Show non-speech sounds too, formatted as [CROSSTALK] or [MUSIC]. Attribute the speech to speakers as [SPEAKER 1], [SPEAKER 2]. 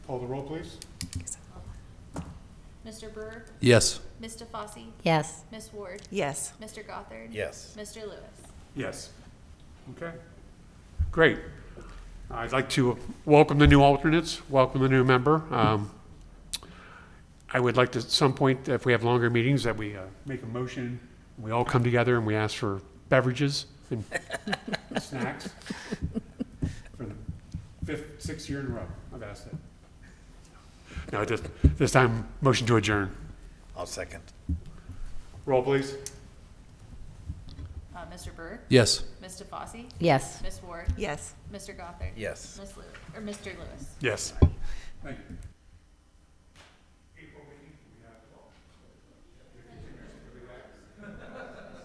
[SPEAKER 1] Call the roll, please.
[SPEAKER 2] Mr. Burr,
[SPEAKER 3] Yes.
[SPEAKER 2] Ms. DeFosse,
[SPEAKER 4] Yes.
[SPEAKER 2] Ms. Ward,
[SPEAKER 4] Yes.
[SPEAKER 2] Mr. Gothard.
[SPEAKER 3] Yes.
[SPEAKER 2] Mr. Lewis.
[SPEAKER 1] Yes. Okay. Great. I'd like to welcome the new alternates, welcome the new member. Um, I would like to, at some point, if we have longer meetings, that we uh, make a motion, we all come together and we ask for beverages and [LAUGHS] snacks for the fifth, sixth year in a row. I've asked that. No, just, this time, motion to adjourn.
[SPEAKER 3] I'll second.
[SPEAKER 1] Roll, please.
[SPEAKER 2] Uh, Mr. Burr,
[SPEAKER 3] Yes.
[SPEAKER 2] Ms. DeFosse,
[SPEAKER 4] Yes.
[SPEAKER 2] Ms. Ward,
[SPEAKER 4] Yes.
[SPEAKER 2] Mr. Gothard.
[SPEAKER 3] Yes.
[SPEAKER 2] Ms. Lew, or Mr. Lewis.
[SPEAKER 1] Yes. Thank you.